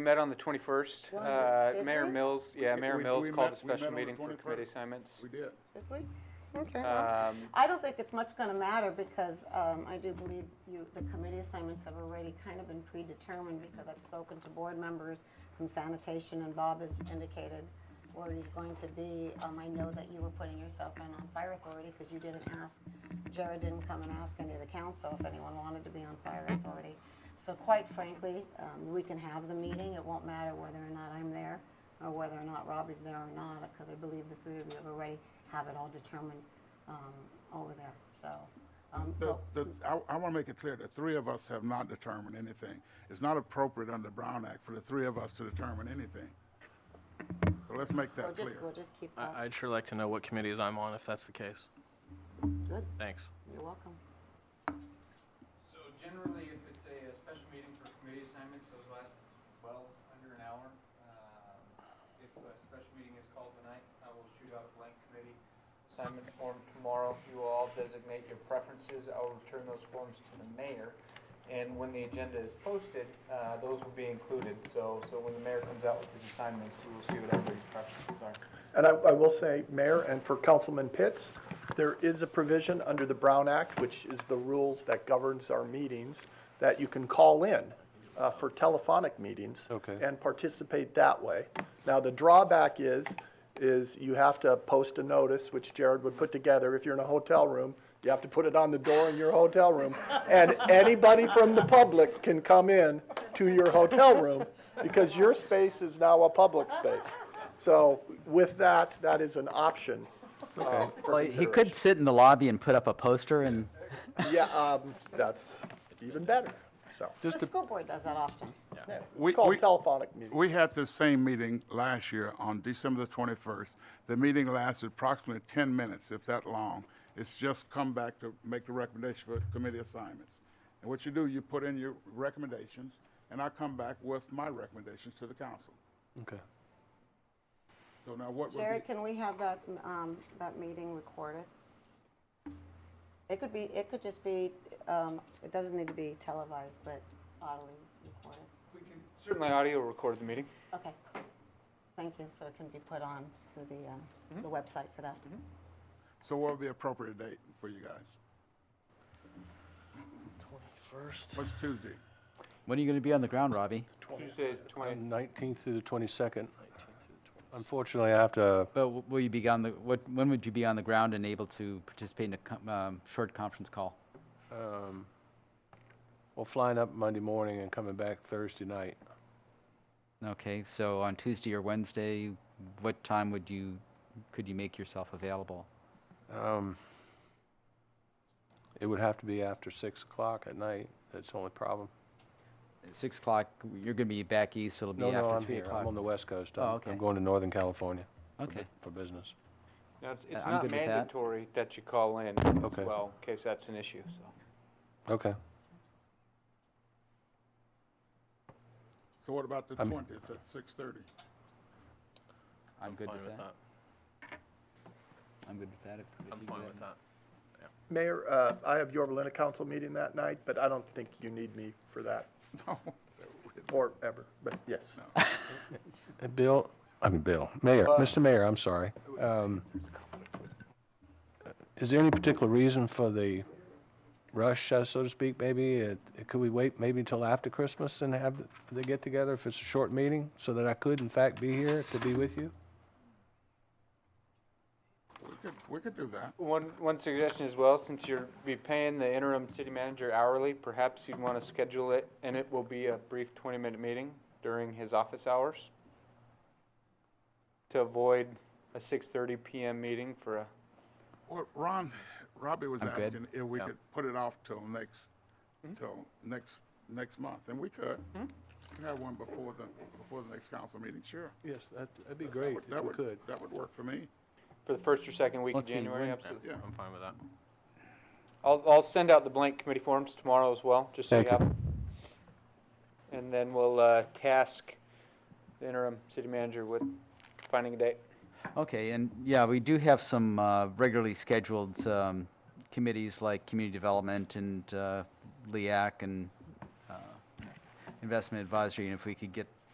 We Met on the twenty-first, Was it? uh, Did Mayor we? Mills, yeah, We- Mayor we- Mills we called met- a we special met on the meeting for 21st. committee assignments. We did. Did we? Okay. well, Um, I don't think it's much gonna matter because, um, I do believe you, the committee assignments have already kind of been predetermined because I've spoken to board members from sanitation and Bob has indicated where he's going to be. Um, I know that you were putting yourself in on fire authority because you didn't ask, Jared didn't come and ask any of the council if anyone wanted to be on fire authority. So quite frankly, um, we can have the meeting. It won't matter whether or not I'm there or whether or not Robbie's there or not, because I believe the three of you have already have it all determined, um, over there, so. um, The, but- the, I, I want to make it clear, the three of us have not determined anything. It's not appropriate under Brown Act for the three of us to determine anything. So let's make We'll that just, clear. we'll just keep I- that. I'd sure like to know what committees I'm on if that's the case. Good, Thanks. you're welcome. So generally, if it's a, a special meeting for committee assignments, those last well under an hour. Um, If a special meeting is called tonight, I will shoot out a blank committee assignment form tomorrow. You will all designate your preferences. I'll return those forms to the mayor. And when the agenda is posted, uh, those will be included. So, so when the mayor comes out with his assignments, you will see what everybody's preferences are. And I, I will say, Mayor, and for Councilman Pitts, there is a provision under the Brown Act, which is the rules that governs our meetings, that you can call in uh, for telephonic meetings. Okay. And participate that way. Now, the drawback is, is you have to post a notice, which Jared would put together. If you're in a hotel room, you have to put it on the door in your hotel room. And anybody from the public can come in to your hotel room because your space is now a public space. So with that, that is an option uh, for Well, he could consideration. sit in the lobby and put up a poster and, Yeah, um, that's even better, so. Just The to, school board does that often. yeah. We- It's called we- telephonic meeting. We had this same meeting last year on December the 21st. The meeting lasted approximately 10 minutes, if that long. It's just come back to make the recommendation for committee assignments. And what you do, you put in your recommendations, and I come back with my recommendations to the council. okay. So now what would Jared, be, can we have that, um, that meeting recorded? It could be, it could just be, um, it doesn't need to be televised, but audibly recorded. we can certainly audio record the meeting. Okay. Thank you, so it can be put on through the, um, the website for that. so what would be appropriate date for you guys? Twenty-first. What's Tuesday? when are you going to be on the ground, Robbie? Tuesday is On twenty, 19th Uh, through the 22nd. Unfortunately, I have to, But w- will you be on the, what, when would you be on the ground and able to participate in a com- um, short conference call? um, well, flying up Monday morning and coming back Thursday night. Okay, so on Tuesday or Wednesday, what time would you, could you make yourself available? Um, It would have to be after 6 o'clock at night. That's the only problem. At Six o'clock, you're going to be back east, so it'll be No, no, after I'm three here. I'm on o'clock. the West Coast. Oh, I'm- okay. I'm going to Northern California for bu- Okay. for business. now, it's, it's I'm not good with that. mandatory that you call in as Okay. well, in case that's an issue, so. Okay. So what about the I'm- 20th at 6:30? I'm good fine with that. I'm good with that. if- if I'm you do fine with that. Mayor, uh, I have your Belinda council meeting that night, but I don't think you need me for that. Or ever, but yes. Uh, Bill, I mean, Bill, Mayor, Uh, Mr. Mayor, I'm sorry. Um, Is there any particular reason for the rush, uh, so to speak, maybe? It- it- Could we wait maybe until after Christmas and have the- the get-together if it's a short meeting, so that I could in fact be here to be with you? We could, we could do that. One, one suggestion as well, since you're be paying the interim city manager hourly, perhaps you'd want to schedule it, and it will be a brief twenty-minute meeting during his office hours to avoid a six-thirty PM meeting for a, Well, Ron, Robbie was I'm good. asking if we could put it off till next, till next, next month, and we could. We have one before the, before the next council meeting, sure. Yes, that'd be great That would- That would work for me. for the first or second week of Let's see, January, when- absolutely. Yeah. I'm fine with that. I'll, I'll send out the blank committee forms tomorrow as well, just so you Thank have. 'em. And then we'll, uh, task the interim city manager with finding a date. Okay, and yeah, we do have some uh, regularly scheduled um, committees like Community Development E and uh, LEAC and uh, Investment Advisory, and if we could get